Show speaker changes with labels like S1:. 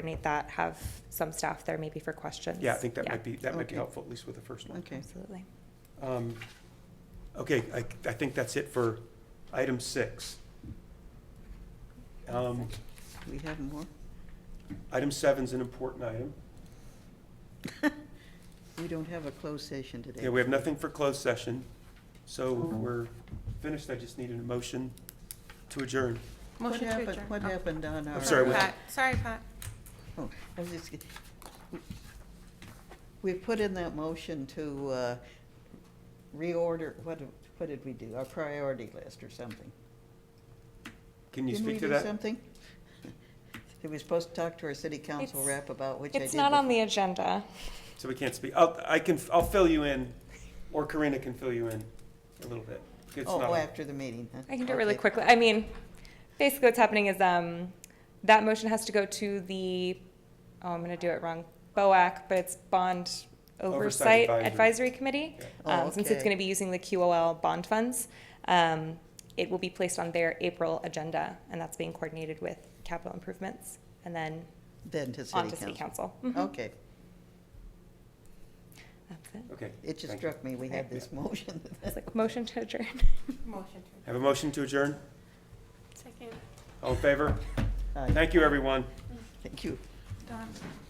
S1: coordinate that, have some staff there maybe for questions.
S2: Yeah, I think that might be, that might be
S3: Okay.
S2: helpful, at least with the first one.
S3: Okay.
S1: Absolutely.
S2: Um, Okay, I, I think that's it for item six. Um,
S3: We have more?
S2: Item seven's an important item.
S3: We don't have a closed session today.
S2: Yeah, we have nothing for closed session, so we're finished. I just needed a motion to adjourn.
S3: What
S4: Motion to
S3: happened-
S4: adjourn.
S3: What happened on our?
S2: I'm Oh, sorry, what-
S4: Pat, sorry, Pat.
S3: Oh, I was just, get- we put in that motion to uh, reorder, what, do- what did we do? Our priority list or something?
S2: Can you
S3: Didn't we
S2: speak to
S3: do
S2: that?
S3: something? That we supposed to talk to our city council
S1: It's-
S3: rep about, which I did.
S1: It's not on the agenda.
S2: So we can't speak. I'll, I can, I'll fill you in, or Karina can fill you in a little bit. It's
S3: before.
S2: not-
S3: Oh, after the meeting, huh?
S1: I can do it really
S3: Okay.
S1: quickly. I mean, basically what's happening is, um, that motion has to go to the, oh, I'm gonna do it wrong, BOAC, but it's Bond
S2: Oversight
S1: Oversight
S2: Advisory.
S1: Advisory Committee.
S2: Yeah.
S3: Oh,
S1: Um, since it's
S3: okay.
S1: gonna be using the QOL bond funds, um, it will be placed on their April agenda, and that's being coordinated with capital improvements, and then
S3: Then to
S1: on
S3: city
S1: to city
S3: council.
S1: council. Mhm.
S3: Okay,
S1: That's it.
S2: Okay.
S3: it just
S2: thank you.
S3: struck me, we had this motion.
S1: It's like motion to adjourn.
S4: Motion
S2: Have a motion to adjourn?
S4: to. Second.
S2: All in favor?
S3: Aye.
S2: Thank you, everyone.
S3: Thank you.
S4: Done.